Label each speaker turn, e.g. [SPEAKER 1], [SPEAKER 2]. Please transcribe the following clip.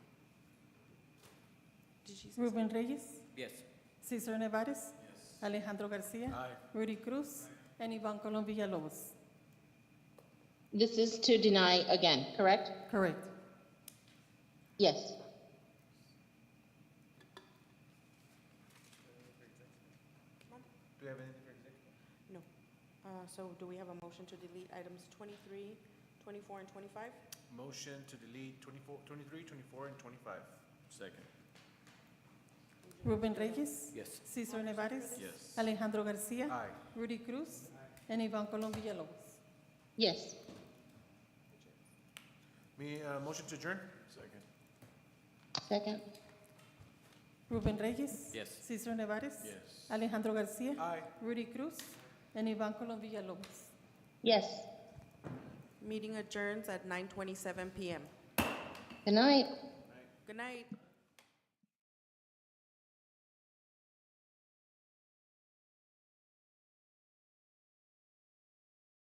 [SPEAKER 1] Jesus.
[SPEAKER 2] Rubén Reyes,
[SPEAKER 3] Yes.
[SPEAKER 2] Cesar Nevares, Alejandro Garcia, Rudy Cruz, and Ivan Colom Villalobos.
[SPEAKER 4] This is to deny again, correct?
[SPEAKER 2] Correct.
[SPEAKER 4] Yes.
[SPEAKER 5] Do we have anything for executive?
[SPEAKER 1] No. Uh, So do we have a motion to delete items 23, 24, and 25?
[SPEAKER 5] Motion to delete 24, 23, 24, and 25. Second.
[SPEAKER 2] Rubén Reyes,
[SPEAKER 3] Yes.
[SPEAKER 2] Cesar Nevares,
[SPEAKER 5] Yes.
[SPEAKER 2] Alejandro Garcia,
[SPEAKER 5] Aye.
[SPEAKER 2] Rudy Cruz, and Ivan Colom Villalobos.
[SPEAKER 4] Yes.
[SPEAKER 5] Me, uh, motion to adjourn? Second.
[SPEAKER 4] Second?
[SPEAKER 2] Rubén Reyes,
[SPEAKER 3] Yes.
[SPEAKER 2] Cesar Nevares,
[SPEAKER 5] Yes.
[SPEAKER 2] Alejandro Garcia,
[SPEAKER 5] Aye.
[SPEAKER 2] Rudy Cruz, and Ivan Colom Villalobos.
[SPEAKER 4] Yes.
[SPEAKER 1] Meeting adjourns at 9:27 PM.
[SPEAKER 4] Good night.
[SPEAKER 1] Good night.